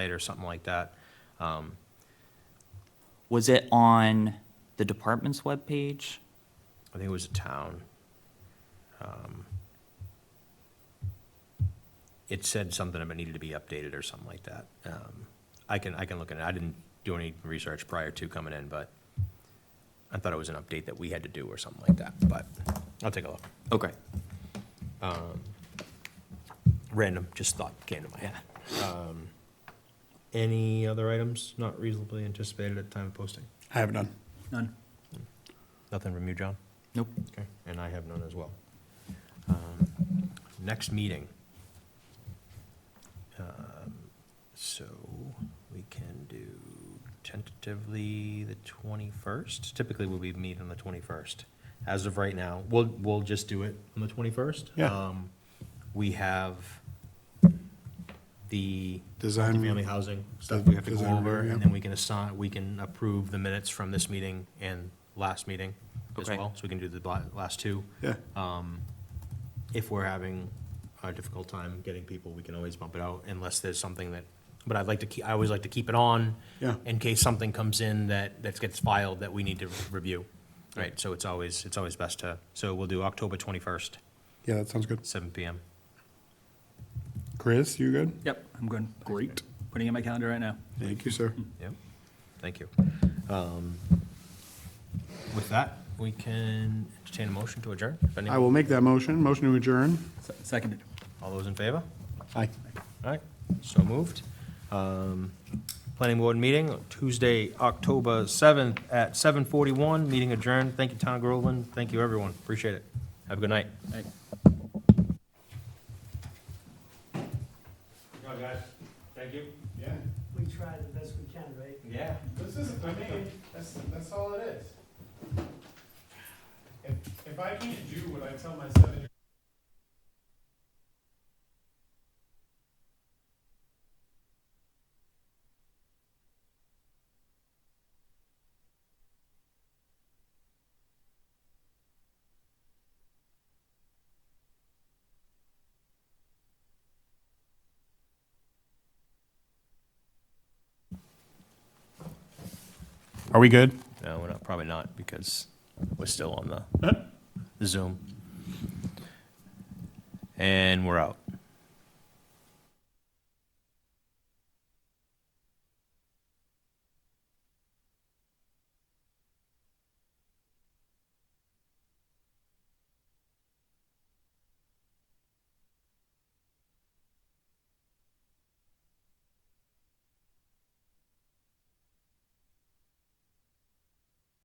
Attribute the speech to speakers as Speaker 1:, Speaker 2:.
Speaker 1: night or something like that. Um,
Speaker 2: Was it on the department's webpage?
Speaker 1: I think it was a town. Um, It said something about needed to be updated or something like that. Um, I can, I can look at it. I didn't do any research prior to coming in, but I thought it was an update that we had to do or something like that, but I'll take a look.
Speaker 2: Okay.
Speaker 1: Random, just thought came to my head. Um, Any other items not reasonably anticipated at the time of posting?
Speaker 3: I have none.
Speaker 2: None.
Speaker 1: Nothing from you, John?
Speaker 2: Nope.
Speaker 1: Okay, and I have none as well. Um, Next meeting. Um, So we can do tentatively the 21st. Typically, we'll be meeting on the 21st. As of right now, we'll, we'll just do it on the 21st.
Speaker 3: Yeah.
Speaker 1: Um, We have the
Speaker 3: Design
Speaker 1: family
Speaker 3: review.
Speaker 1: housing stuff we have to go
Speaker 3: Design
Speaker 1: over,
Speaker 3: review,
Speaker 1: and
Speaker 3: yeah.
Speaker 1: then we can assign, we can approve the minutes from this meeting and last meeting as
Speaker 2: Okay.
Speaker 1: well, so we can do the bla- last two.
Speaker 3: Yeah,
Speaker 1: Um, If we're having a difficult time getting people, we can always bump it out unless there's something that, but I'd like to keep, I always like to keep it on
Speaker 3: yeah.
Speaker 1: in case something comes in that, that gets filed that we need to review. Right, so it's always, it's always best to, so we'll do October twenty-first,
Speaker 3: Yeah, that sounds good.
Speaker 1: seven PM.
Speaker 3: Chris, you good?
Speaker 4: Yep, I'm good. Great. Putting in my calendar right now.
Speaker 3: Thank you, sir.
Speaker 1: Yep, thank you. Um, With that, we can entertain a motion to adjourn, if any,
Speaker 3: I will make that motion. Motion to adjourn.
Speaker 4: Se- Seconded.
Speaker 1: all those in favor?
Speaker 3: Aye.
Speaker 1: All right, so moved. Um, Planning board meeting, Tuesday, October 7th at 7:41, meeting adjourned. Thank you, Town of Groveland. Thank you, everyone. Appreciate it. Have a good night.
Speaker 4: Right.
Speaker 1: guys. Thank you.
Speaker 3: Yeah,
Speaker 5: we try the best we can, right?
Speaker 1: Yeah.
Speaker 3: this is, I mean, that's, that's all it is. If, if I can't do what I tell my seven-year-old Are we good?
Speaker 1: No, we're not, probably not, because we're still on the Zoom. And we're out.